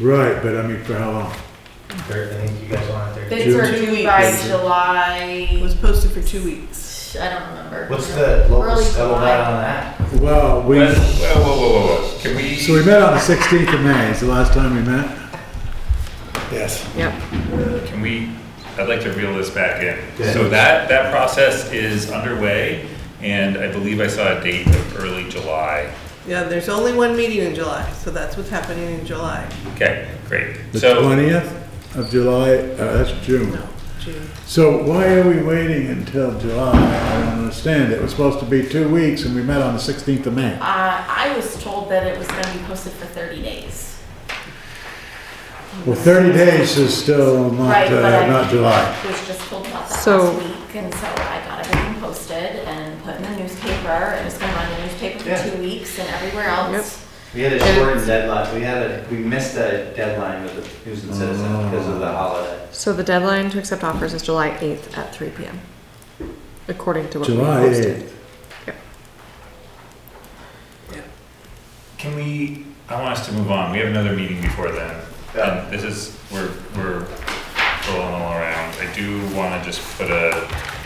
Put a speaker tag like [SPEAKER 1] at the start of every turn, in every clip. [SPEAKER 1] Right, but I mean, for how long?
[SPEAKER 2] Thir- I think you guys want it there.
[SPEAKER 3] Bids are
[SPEAKER 4] Two
[SPEAKER 3] due
[SPEAKER 4] weeks.
[SPEAKER 3] by
[SPEAKER 1] Mhm.
[SPEAKER 4] It
[SPEAKER 3] July,
[SPEAKER 4] was posted for two weeks.
[SPEAKER 3] I don't remember.
[SPEAKER 2] What's the local
[SPEAKER 3] Early
[SPEAKER 2] scuttlebutt on
[SPEAKER 3] July.
[SPEAKER 2] that?
[SPEAKER 1] Well, we,
[SPEAKER 5] Well, whoa, whoa, whoa, whoa, whoa. Can we?
[SPEAKER 1] so we met on the 16th of May, is the last time we met? Yes.
[SPEAKER 4] Yep.
[SPEAKER 5] Can we, I'd like to reel this back in.
[SPEAKER 2] Yeah.
[SPEAKER 5] So that, that process is underway, and I believe I saw a date of early July.
[SPEAKER 4] Yeah, there's only one meeting in July, so that's what's happening in July.
[SPEAKER 5] Okay, great.
[SPEAKER 1] The
[SPEAKER 5] So,
[SPEAKER 1] 20th of July, uh, that's June.
[SPEAKER 4] No, June.
[SPEAKER 1] So why are we waiting until July? I don't understand. It was supposed to be two weeks and we met on the 16th of May.
[SPEAKER 3] Uh, I was told that it was gonna be posted for thirty days.
[SPEAKER 1] Well, 30 days is still not,
[SPEAKER 3] Right, but
[SPEAKER 1] uh,
[SPEAKER 3] I-
[SPEAKER 1] not July.
[SPEAKER 3] Was just told about that
[SPEAKER 6] So-
[SPEAKER 3] last week, and so I got everything posted and put in the newspaper, and it's gonna run the newspaper
[SPEAKER 2] Yeah.
[SPEAKER 3] for two weeks and everywhere else.
[SPEAKER 2] We had a
[SPEAKER 6] And-
[SPEAKER 2] shortened deadline, we had a, we missed a deadline with the News and Citizen because of the holiday.
[SPEAKER 6] So the deadline to accept offers is July 8th at 3 PM, according to what we
[SPEAKER 1] July
[SPEAKER 6] posted.
[SPEAKER 1] 8th.
[SPEAKER 5] can we, I want us to move on. We have another meeting before then.
[SPEAKER 2] Yeah.
[SPEAKER 5] And this is, we're, we're rolling all around. I do want to just put a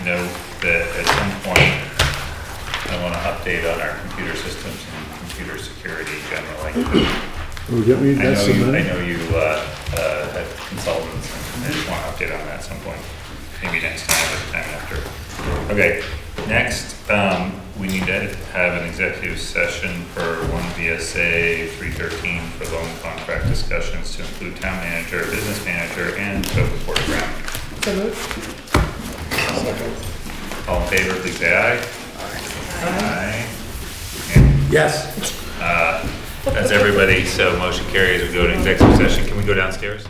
[SPEAKER 5] note that at some point, I want to update on our computer systems and computer security generally.
[SPEAKER 1] Will you get me
[SPEAKER 5] I know
[SPEAKER 1] that
[SPEAKER 5] you, I
[SPEAKER 1] cement?
[SPEAKER 5] know you, uh, uh, have consultants, and I just want to update on that at some point, maybe next time or the time after. Okay, next, um, we need to have an executive session for one VSA three thirteen for loan contract discussions to include town manager, business manager, and code board ground. All in favor, please say aye. Aye. And
[SPEAKER 1] Yes.
[SPEAKER 5] that's everybody, so motion carries, we go to executive session, can we go downstairs?